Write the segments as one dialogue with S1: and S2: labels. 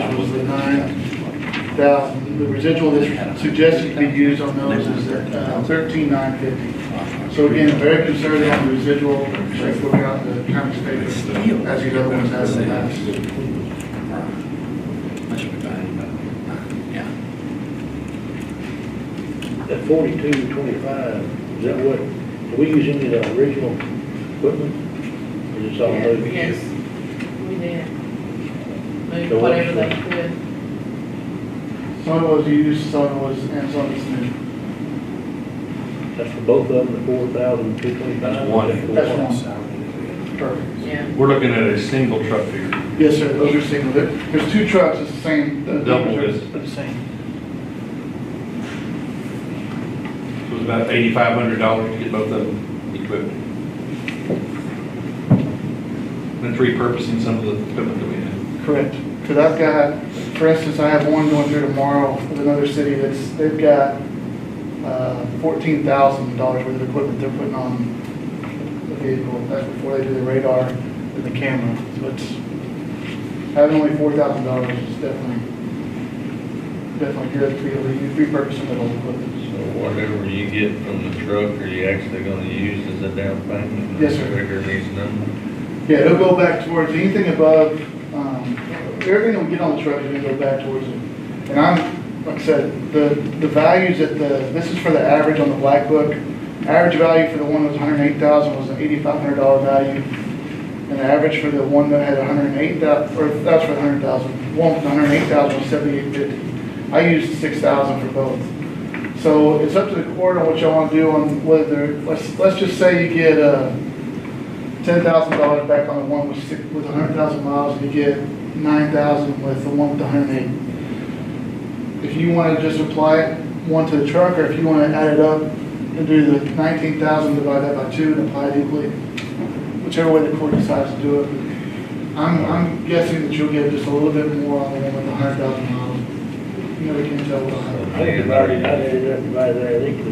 S1: Now, uh, the residual that's suggested to be used on those is uh, thirteen nine fifty. So again, very conservative on the residual, if we out the county paper, as these other ones have in the past.
S2: That forty-two twenty-five, is that what, do we use any of the original equipment? Or just all
S3: Yeah,
S2: those?
S3: Yes, we did.
S2: So
S3: Moved
S2: what-
S3: whatever they could.
S1: Some was used, some was, and some is new.
S2: That's for both of them, the four thousand two twenty-five?
S4: That's one.
S1: That's one. Perfect.
S3: Yeah,
S4: We're looking at a single truck here.
S1: Yes, sir, those are single. There- There's two trucks, it's the same. uh, the
S4: Double
S1: numbers are
S4: this.
S1: The same.
S4: So It was about eighty-five hundred dollars to get both of them equipped. And it's repurposing some of the equipment that we had.
S1: Correct. Because I've got, for instance, I have one going through tomorrow with another city that's, they've got uh, fourteen thousand dollars worth of equipment they're putting on the vehicle. That's before they do the radar and the camera. So it's, having only four thousand dollars is definitely, definitely good to be able to use- repurpose some of those equipment.
S5: So whatever you get from the truck, are you actually gonna use as a down payment?
S1: Yes, sir.
S5: Figure these numbers?
S1: Yeah, it'll go back towards anything above, um, everything that we get on the truck is gonna go back towards it. And I'm, like I said, the, the values that the, this is for the average on the black book. Average value for the one that was hundred and eight thousand was an eighty-five hundred dollar value. And the average for the one that had 108,000 or that's for the hundred thousand, one with hundred and eight thousand was seventy-eight fifty. I used six thousand for both. So it's up to the court on what y'all wanna do on whether, let's, let's just say you get, uh, ten thousand dollars back on the one with six, with a hundred thousand miles, and you get nine thousand with the one with the hundred and eight. If you wanna just apply it, one to the truck, or if you wanna add it up and do the nineteen thousand, divide that by two and apply it equally, whichever way the court decides to do it. I'm, I'm guessing that you'll get just a little bit more on the one with the hundred thousand miles. You never can tell what
S2: I
S1: I
S2: think it's already, I think it's everybody there, I think it's,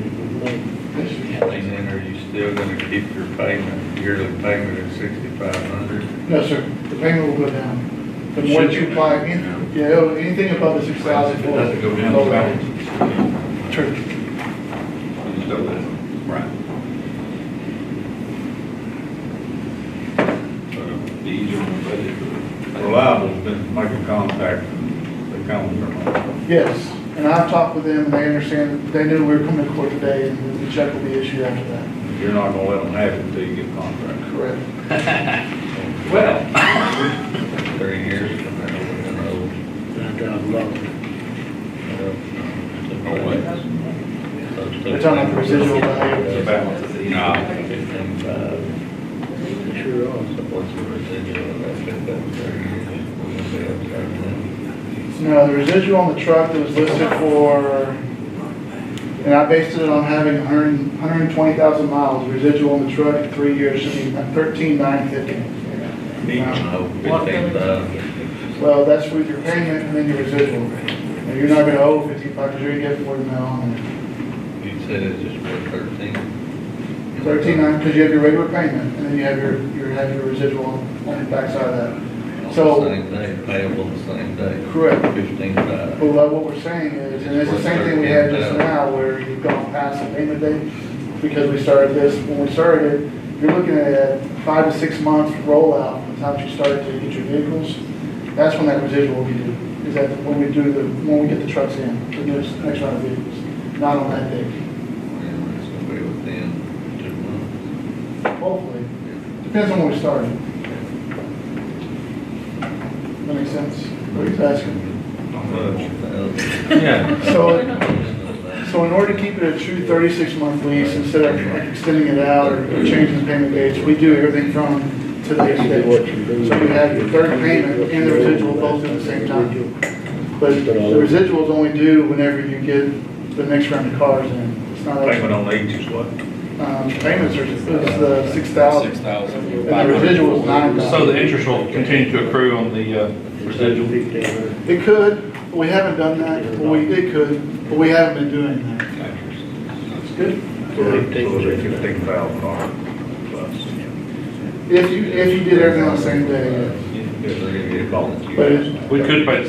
S2: it's,
S5: And then are you still gonna keep your payment, yearly payment at sixty-five hundred?
S1: No, sir, the payment will go down. The more that you apply, any- yeah, it'll- anything above the six thousand.
S4: If it doesn't go down, the balance.
S1: True.
S4: We just double that. Right. So it'll be easier on the budget.
S5: Reliable's been making contact, they come.
S1: Yes, and I've talked with them, and they understand, they knew we were coming to court today, and the check will be issued after that.
S5: You're not gonna let them have it until you get contract.
S1: Correct.
S4: Well.
S5: Thirty years from now, we're gonna owe.
S2: nine thousand dollars.
S5: uh, No way.
S1: They're talking about the residual value.
S4: balance is easy.
S5: Nah, fifteen-five.
S2: It Sure are.
S5: What's the residual of that fifteen thirty?
S1: No, the residual on the truck that was listed for, and I based it on having 100 120,000 miles, residual on the truck in three years should be 13,950.
S5: Each
S1: Um,
S5: of fifteen thousand.
S1: Well, that's with your payment and then your residual. Now, you're not gonna owe 55, because you're gonna get more than that on there.
S5: You said it's just worth thirteen.
S1: 13,9, because you have your regular payment, and then you have your, you have your residual on on the backside of that.
S5: On
S1: So-
S5: the same day, payable the same day.
S1: Correct.
S5: Fifteen five.
S1: Well, like what we're saying is, and it's the same thing we had just now, where you've gone past the payment date, because we started this, when we started, you're looking at five to six months rollout from the time you started to get your vehicles. That's when that residual will be due, is that when we do the, when we get the trucks in, the next, next round of vehicles, not on that day,
S5: And it's gonna be within two months.
S1: hopefully. Depends on when we started. That makes sense, what he's asking.
S4: Yeah.
S1: So, So in order to keep it a true thirty-six month lease, instead of like extending it out or changing the payment dates, we do everything from today's
S2: You do what
S1: date.
S2: you do.
S1: So you have your third payment and the residual both at the same time. But the residual's only due whenever you get the next round of cars in. It's not,
S5: Payment on each is what?
S1: um, payments are, is the six thousand.
S6: thousand.
S1: And the residual is nine
S4: So
S1: thousand.
S4: the interest will continue to accrue on the uh, residual?
S2: Fifteen hundred.
S1: It could, but we haven't done that, Well, we, it could, but we haven't been doing that. It's good.
S5: Fifteen thousand dollars.
S1: If you, if you did everything on the same day, yes.
S5: If they're gonna get volunteers.
S1: But it's-
S4: We could pay the